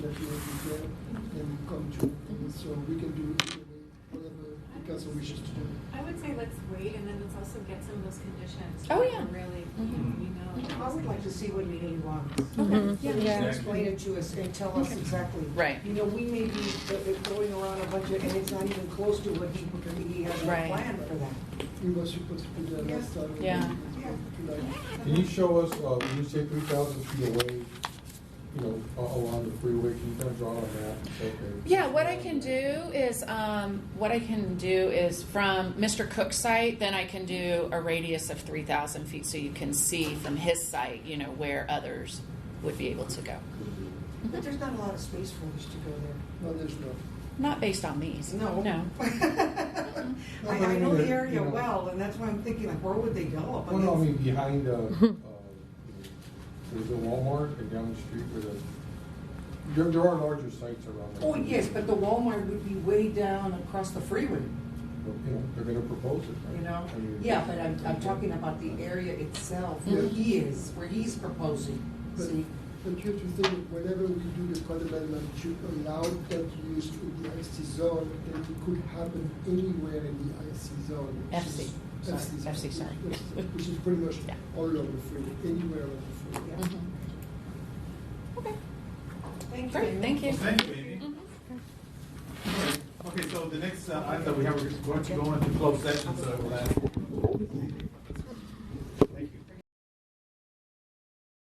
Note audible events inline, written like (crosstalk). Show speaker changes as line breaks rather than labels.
so we can do either way, whatever the council wishes to do.
I would say let's wait and then let's also get some of those conditions.
Oh, yeah.
Really,
Mhm.
you know.
I would like to see what he really wants.
Mhm.
Yeah, he can
Yeah.
explain it to us and tell us exactly.
Right.
You know, we may be uh, going around a budget and it's not even close to what he, he has a
Right.
plan for that.
We were supposed to put that last time. in
Yeah.
July.
Can you show us, uh, when you say three thousand feet away, you know, a- along the freeway, can you kind of draw a map? Okay.
Yeah, what I can do is, um, what I can do is from Mr. Cook's site, then I can do a radius of three thousand feet, so you can see from his site, you know, where others would be able to go.
Mm-hmm.
But there's not a lot of space for us to go there.
No, there's not.
Not based on these.
(laughs)
No.
I, I know the area well, and that's why I'm thinking, like, where would they go up
Well, no, I mean,
against?
behind, uh, (laughs) uh, there's a Walmart and down the street where the, there, there are larger sites around. there.
Oh, yes, but the Walmart would be way down across the freeway,
But, You know, they're gonna propose it. right?
you know?
I mean-
Yeah, but I'm, I'm talking about the area itself, where he is, where he's proposing,
But,
see?
but you have to think, whenever we do the code amendment, you allow that use in the IC zone, then it could happen anywhere in the IC zone. which
FC,
is-
sorry,
zone,
FC, sorry.
which is- Which is pretty much
Yeah.
all over the freeway, anywhere on the freeway.
Yeah.
Mhm.
Mm-hmm.
Okay,
Thank you.
great, thank you.
Well, Thank you, Amy.
Mhm.
Okay, so the next uh, item that we have, we're going to go into closed session, so we'll ask